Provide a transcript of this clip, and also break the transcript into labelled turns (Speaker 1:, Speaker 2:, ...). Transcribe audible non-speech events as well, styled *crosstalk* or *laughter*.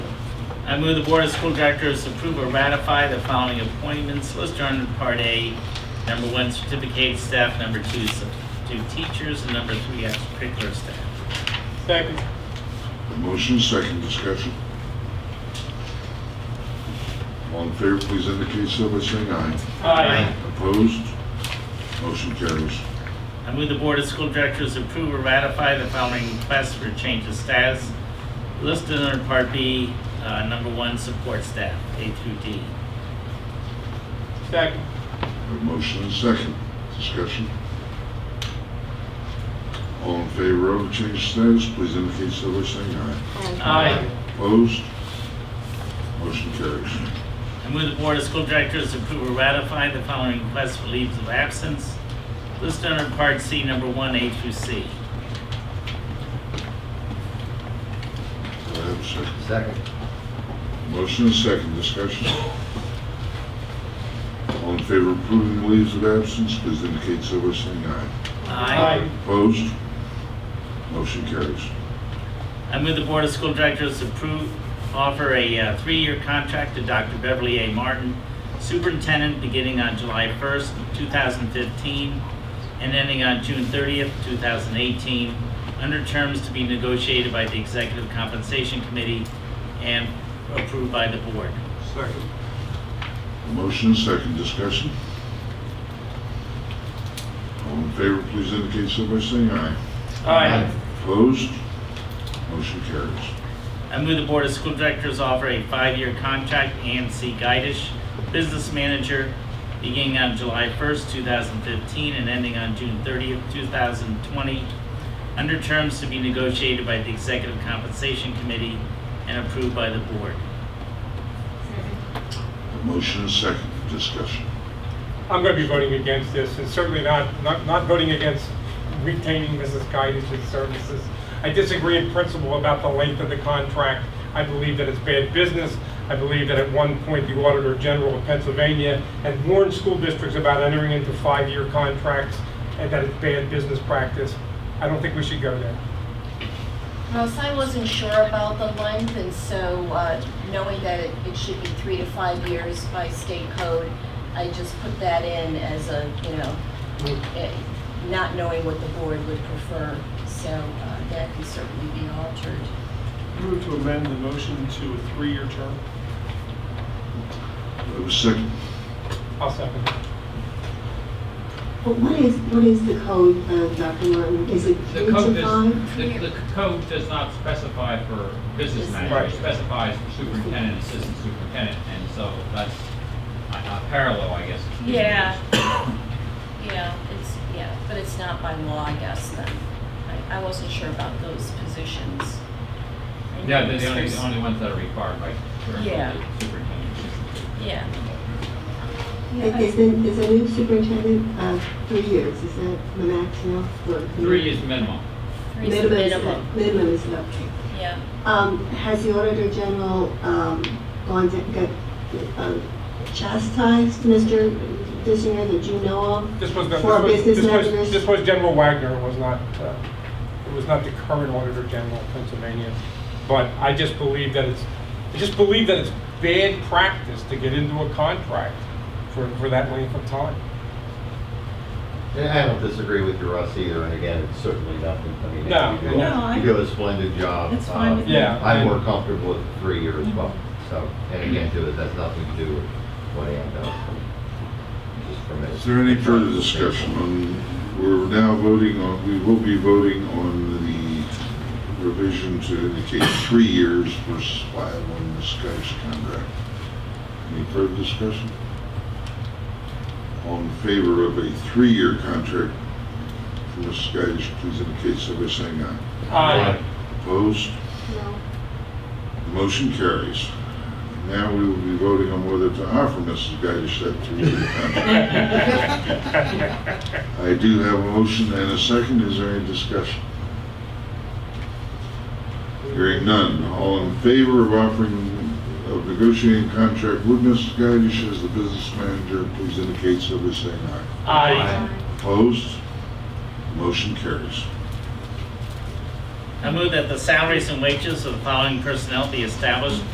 Speaker 1: I move the Board of School Directors approve or ratify the following appointments listed under Part A. Number one, certificate staff, number two, substitute teachers, and number three, extracurricular staff.
Speaker 2: Second.
Speaker 3: A motion, second discussion. All in favor, please indicate so by saying aye.
Speaker 2: Aye.
Speaker 3: Opposed? Motion carries.
Speaker 1: I move the Board of School Directors approve or ratify the following requests for change of status listed under Part B, uh, number one, support staff, A through D.
Speaker 2: Second.
Speaker 3: A motion and second discussion. All in favor of the change of status, please indicate so by saying aye.
Speaker 1: Aye.
Speaker 3: Opposed? Motion carries.
Speaker 1: I move the Board of School Directors approve or ratify the following requests for leaves of absence listed under Part C, number one, A through C.
Speaker 3: Do I have a second?
Speaker 4: Second.
Speaker 3: Motion and second discussion. All in favor of approving the leaves of absence, please indicate so by saying aye.
Speaker 2: Aye.
Speaker 3: Opposed? Motion carries.
Speaker 1: I move the Board of School Directors approve, offer a uh, three-year contract to Dr. Beverly A. Martin, Superintendent, beginning on July 1st, 2015, and ending on June 30th, 2018, under terms to be negotiated by the Executive Compensation Committee and approved by the Board.
Speaker 2: Second.
Speaker 3: Motion and second discussion. All in favor, please indicate so by saying aye.
Speaker 2: Aye.
Speaker 3: Opposed? Motion carries.
Speaker 1: I move the Board of School Directors offer a five-year contract Ann C. Guidish, Business Manager, beginning on July 1st, 2015, and ending on June 30th, 2020, under terms to be negotiated by the Executive Compensation Committee and approved by the Board.
Speaker 3: Motion and second discussion.
Speaker 2: I'm going to be voting against this, and certainly not, not, not voting against retaining Mrs. Guidish's services. I disagree in principle about the length of the contract. I believe that it's bad business. I believe that at one point, the Auditor General of Pennsylvania had warned school districts about entering into five-year contracts, and that it's bad business practice. I don't think we should go there.
Speaker 5: Russ, I wasn't sure about the length, and so uh, knowing that it- it should be three to five years by state code, I just put that in as a, you know, eh, not knowing what the board would prefer, so uh, that can certainly be altered.
Speaker 6: Move to amend the motion to a three-year term.
Speaker 3: Do I have a second?
Speaker 2: I'll second. it.
Speaker 7: But what is, what is the code, uh, Dr. Martin? Is it
Speaker 8: The
Speaker 7: three to
Speaker 8: code
Speaker 7: five?
Speaker 8: does, the, the code does not specify for business manager,
Speaker 2: Right.
Speaker 8: it specifies for superintendent, assistant superintendent, and so that's a- a parallel, I guess.
Speaker 5: Yeah. Yeah, it's, yeah, but it's not by law, I guess, then. I- I wasn't sure about those positions. I
Speaker 8: Yeah,
Speaker 5: know
Speaker 8: they're the only,
Speaker 5: there's-
Speaker 8: the only ones that are required by, for
Speaker 5: Yeah.
Speaker 8: the superintendent, assistant.
Speaker 5: Yeah.
Speaker 7: Is the, is the new superintendent, uh, three years, is that the max now? for-
Speaker 8: Three is minimum.
Speaker 5: three's the
Speaker 7: Minimum is, minimum is about.
Speaker 5: Yeah.
Speaker 7: Um, has the Auditor General, um, gone to, got, um, chastised Mr. Disinger that you know of?
Speaker 2: This was, the- this
Speaker 7: For our
Speaker 2: was,
Speaker 7: business
Speaker 2: this was,
Speaker 7: managers.
Speaker 2: this was General Wagner, it was not, uh, it was not the current Auditor General of Pennsylvania. But I just believe that it's, I just believe that it's bad practice to get into a contract for, for that length of time.
Speaker 4: And I don't disagree with you, Russ, either, and again, it's certainly nothing, I mean.
Speaker 2: No,
Speaker 4: you do a-
Speaker 2: no,
Speaker 9: I-
Speaker 4: You do a splendid job.
Speaker 9: That's fine
Speaker 4: Uh,
Speaker 9: with Mm-hmm.
Speaker 2: me. Yeah,
Speaker 4: I'm
Speaker 2: and-
Speaker 4: more comfortable with three years, well, so, and again, too, it has nothing to do with what Ann does. Just for me.
Speaker 3: Is there any further discussion on, we're now voting on, we will be voting on the revision to indicate three years versus five on the Sky's contract. Any further discussion? All in favor of a three-year contract for Ms. Skydish, please indicate so by saying aye.
Speaker 2: Uh,
Speaker 3: Opposed?
Speaker 7: No.
Speaker 3: Motion carries. Now we will be voting on whether to offer Mrs. Gadish that three-year contract.
Speaker 2: *laughs*
Speaker 3: I do have a motion and a second. Is there any discussion? Hearing none. All in favor of offering, of negotiating contract with Mrs. Gadish as the business manager, please indicate so by saying aye.
Speaker 2: Aye.
Speaker 3: Opposed? Motion carries.
Speaker 1: I move that the salaries and wages of the following personnel be established